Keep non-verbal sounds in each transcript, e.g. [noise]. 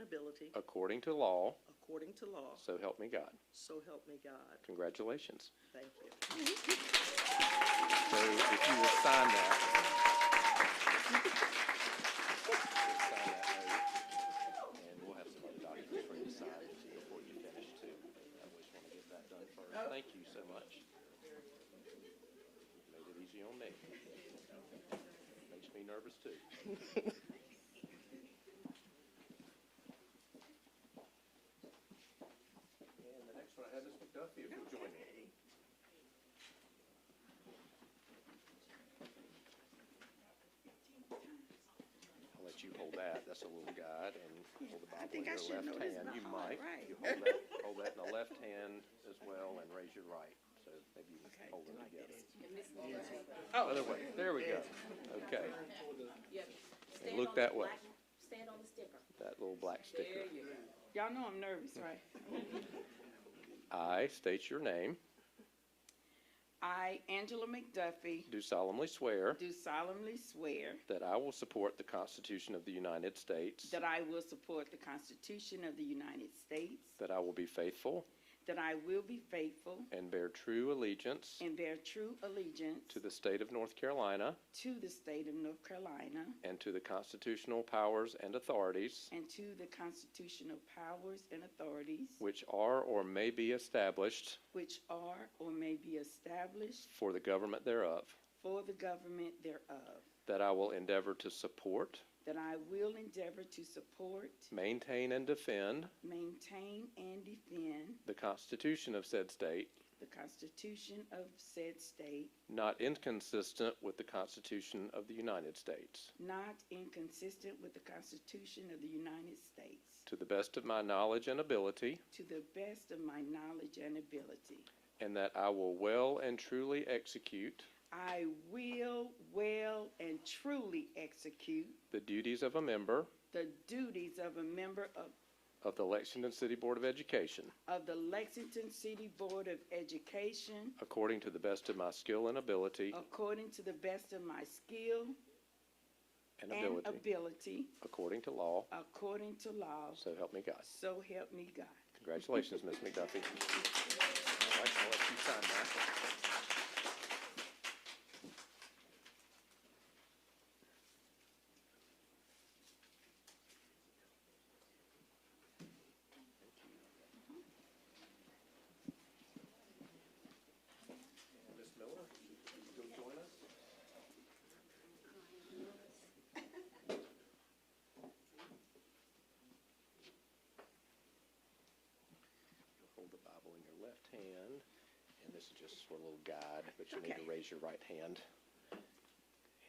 ability according to law, according to law. so help me God. So help me God. Congratulations. Thank you. So if you will sign that. Just sign that oath, And we'll have some other documents for you to sign before you finish too. I always want to get that done first. Thank you so much. Made it easy on me. Makes me nervous [laughs] too. And the next one I have is McDuffie, if you'll join me. I'll let you hold that, that's a little guide, and hold the I Bible in think I your should know left this hand. by You heart, might. right. You hold that, hold that in the [laughs] left hand as well, and raise your right, so maybe you Okay, can hold do it I get together. Oh, it? Other way, there we go, okay, Stand Look on the that way. black- Stand on the sticker. that little black sticker. Y'all know I'm nervous, right? I state your name, I, Angela McDuffie, do solemnly swear do solemnly swear that I will support the Constitution of the United States, that I will support the Constitution of the United States, that I will be faithful that I will be faithful and bear true allegiance and bear true allegiance to the state of North Carolina to the state of North Carolina and to the constitutional powers and authorities and to the constitutional powers and authorities which are or may be established which are or may be established for the government thereof, for the government thereof, that I will endeavor to support, that I will endeavor to support, maintain, and defend maintain, and defend the Constitution of said state, the Constitution of said state, not inconsistent with the Constitution of the United States, Not inconsistent with the Constitution of the United States. to the best of my knowledge and ability, To the best of my knowledge and ability. and that I will well and truly execute I will well and truly execute the duties of a member the duties of a member of, of the Lexington City Board of Education of the Lexington City Board of Education according to the best of my skill and ability, according to the best of my skill and and ability, ability, according to law, according to law. so help me God. So help me God. Congratulations, Ms. McDuffie. I'd like to let you sign that. Ms. Miller, you'll join us? You'll Hold the Bible in your left hand, and this is just for a little guide, but you need to Okay. raise your right hand.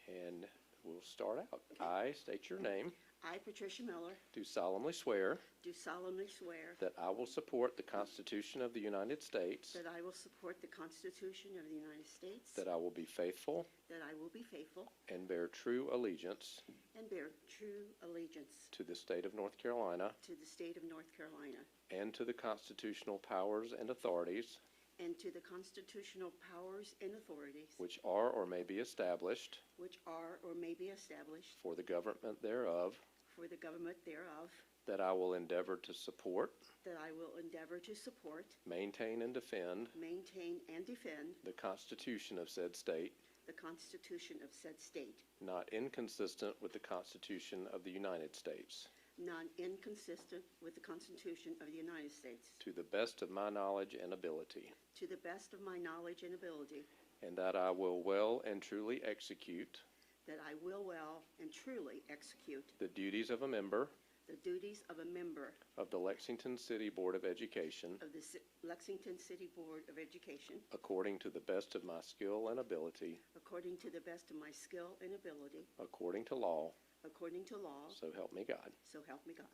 And we'll start out. I state your name, I, Patricia Miller, do solemnly swear do solemnly swear that I will support the Constitution of the United States, that I will support the Constitution of the United States, that I will be faithful that I will be faithful and bear true allegiance and bear true allegiance to the state of North Carolina to the state of North Carolina and to the constitutional powers and authorities and to the constitutional powers and authorities which are or may be established which are or may be established for the government thereof, for the government thereof, that I will endeavor to support, that I will endeavor to support, maintain, and defend maintain, and defend the Constitution of said state, the Constitution of said state, not inconsistent with the Constitution of the United States, not inconsistent with the Constitution of the United States, to the best of my knowledge and ability, to the best of my knowledge and ability, and that I will well and truly execute that I will well and truly execute the duties of a member the duties of a member of the Lexington City Board of Education of the Ci- Lexington City Board of Education according to the best of my skill and ability, according to the best of my skill and ability, according to law, according to law, so help me God. so help me God.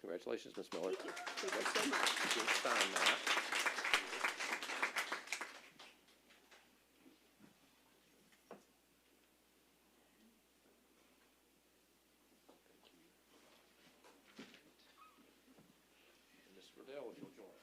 Congratulations, Ms. Miller. Thank you. Thank you so much. Good sign that. And Ms. Riddell, if you'll join us.